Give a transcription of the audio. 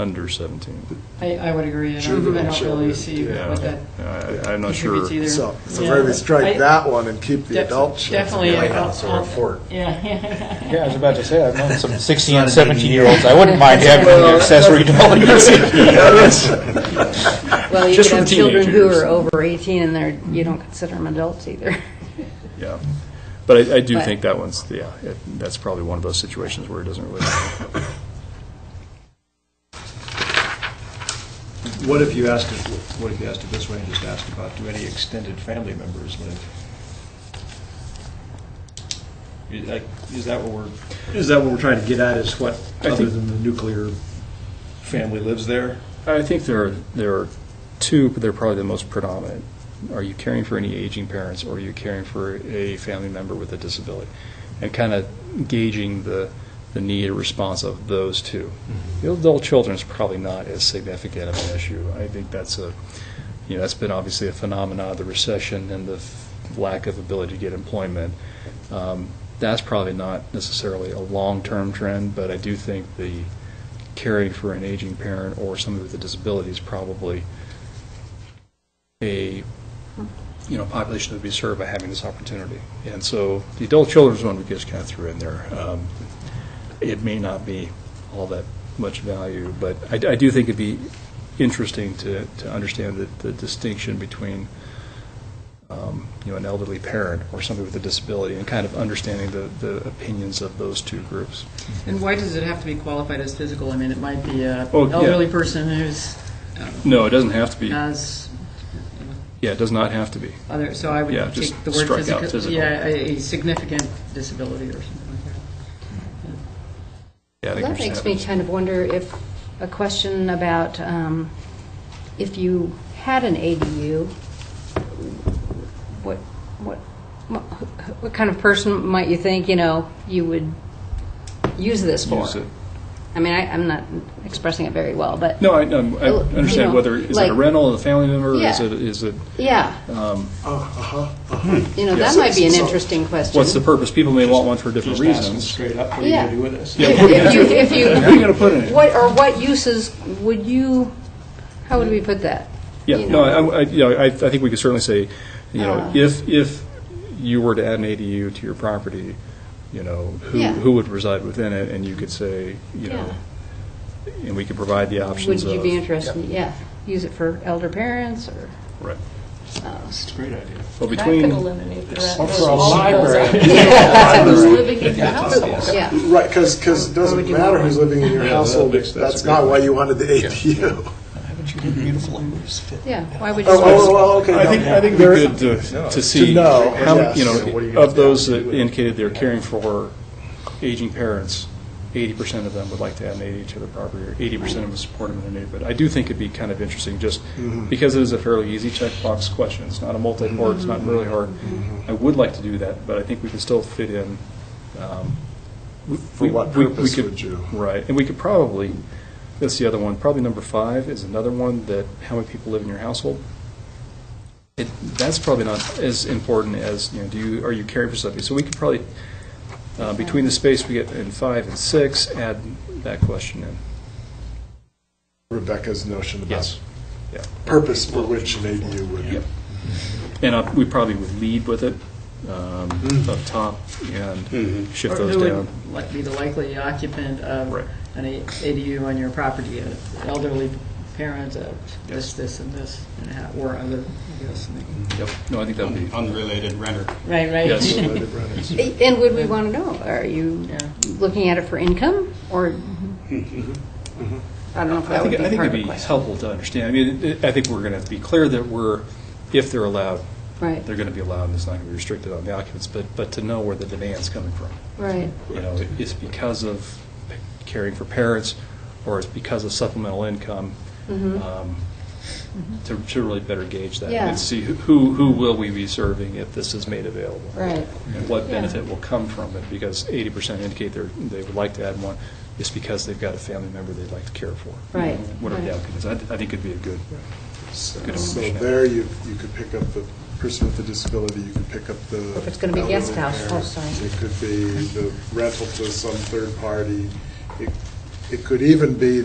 under 17. I, I would agree, and I Sure, don't- I don't sure, really see yeah. what that. Yeah, I- I'm not sure. Contributes either. So, so Yeah. maybe strike I- that one and keep the def- adult children. Definitely. White I'll- House or a I'll- fort. Yeah. Yeah, I was about to say, I've known some 16 and It's not an 17 year olds. I wouldn't mind having an accessory dwelling. Well, you Just for could have the children who teenagers. are over 18 and they're, you don't consider them adults either. Yeah. But I, I do But- think that one's, yeah, it- that's probably one of those situations where it doesn't really. What if you asked it, what if you asked it this way and just asked about, do any extended family members live? Is that- Is that what we're, is that what we're trying to get at, is what, I other think- than the nuclear family lives there? I think there are, there are two, but they're probably the most predominant. Are you caring for any aging parents, or are you caring for a family member with a disability? And kind of gauging the, the need or response of those two. The adult children is probably not as significant of an issue. I think that's a, you know, that's been obviously a phenomenon of the recession and the f- lack of ability to get employment. Um, That's probably not necessarily a long-term trend, but I do think the caring for an aging parent or somebody with a disability is probably a, you know, population that would be served by having this opportunity. And so the adult children's one we just kind of threw in there. Um, It may not be all that much value, but I I do think it'd be interesting to, to understand the, the distinction between, um, you know, an elderly parent or somebody with a disability and kind of understanding the, the opinions of those two groups. And why does it have to be qualified as physical? I mean, it might be a Oh, yeah. elderly person who's, uh, No, it doesn't have to be. Yeah, has it does not have to be. other, so I would Yeah, take just the word strike out physical. physical. Yeah, a a significant disability or something like that. Yeah, I think That we're makes just me having- kind of wonder if, a question about um, if you had an ADU, what, what, what what kind of person might you think, you know, you would use this for? Use it. I mean, I, I'm not expressing it very well, but. No, I, I'm- I Oh, you understand know, whether, is it like- a rental, a family member, is Yeah. it, is it, Yeah, Uh-huh. you know, Um, Yes. that might be an interesting question. what's the purpose? People may want one for different Just ask them reasons. straight up, what are you going Yeah. to do with this? Yeah, what If you, if are you you, gonna put in it? what, or what uses would you, how would we put that? Yeah, you no, know. I, I- you know, I, I think we could certainly say, you know, Uh. if, if you were to add an ADU to your property, you know, who, Yeah. who would reside within it, and you could say, you know, and we could provide the Would options of. you be interested, yeah, use it for elder parents or? Right. uh, It's a great idea. Well, That could between, eliminate the rent. Or for a Those library. Who's living in the household? Yeah, Right, because, because it doesn't matter who's living in your Yeah, that household, makes- that's that's a good not why point. you wanted the ADU. Haven't you been beautiful ladies fit? yeah, why would you? Oh, oh, well, okay. I no, think, yeah. I think it'd be good to, to see, know, how, yes. you You know, what are you know, gonna of those do? that indicated they're caring for aging parents, eighty percent of them would like to add an ADU to their property, or eighty percent of them would support them in their neighborhood. I do think it'd be kind of interesting, just because it is a fairly easy checkbox question, it's not a multi-part, it's not really hard. I would like to do that, but I think we can still fit in, um. we- For what we- we purpose could- would you? Right, and we could probably, that's the other one, probably number five is another one that, how many people live in your household? it, that's probably not as important as, you know, do you, are you caring for somebody? So we could probably, uh, between the space we get in five and six, add that question in. Rebecca's notion about Yes. Yeah. purpose for which an ADU would. And uh, we probably would lead with it um, Mm-hmm. up top and shift Or those who would down. li- Be the likely occupant of Right. an A- ADU on your property, an elderly parent, uh, this, Yes. this, and this, and how- or other, I guess. and they- Yep. No, I think that would be, Unrelated renter. Right, right. Yes. And would we want to know, are you Yeah. looking at it for income or? I don't know if Mm-hmm. I that would think, be I think it'd part of the be question. helpful to understand. I mean, it- I think we're going to have to be clear that we're, if they're allowed, Right, they're going to be allowed, and it's not going to be restricted on the occupants, but, but to know where the demand's coming from. right, you know, it's because of caring for parents, or it's because of supplemental income, um, to to really better gauge that. Mm-hmm. Yeah. And see who, who will we be serving if this is made available? right. And what Yeah. benefit will come from it, because eighty percent indicate they're, they would like to add one, it's because they've got a family member they'd like to care for. Right, Whatever the right. outcome is, I, I think it'd be a good, So Good so information. there you, you could pick up the person with the disability, you could pick up the. If it's gonna be guest elderly house, oh, parent, sorry. It could be the rental to some third party. It- It could even be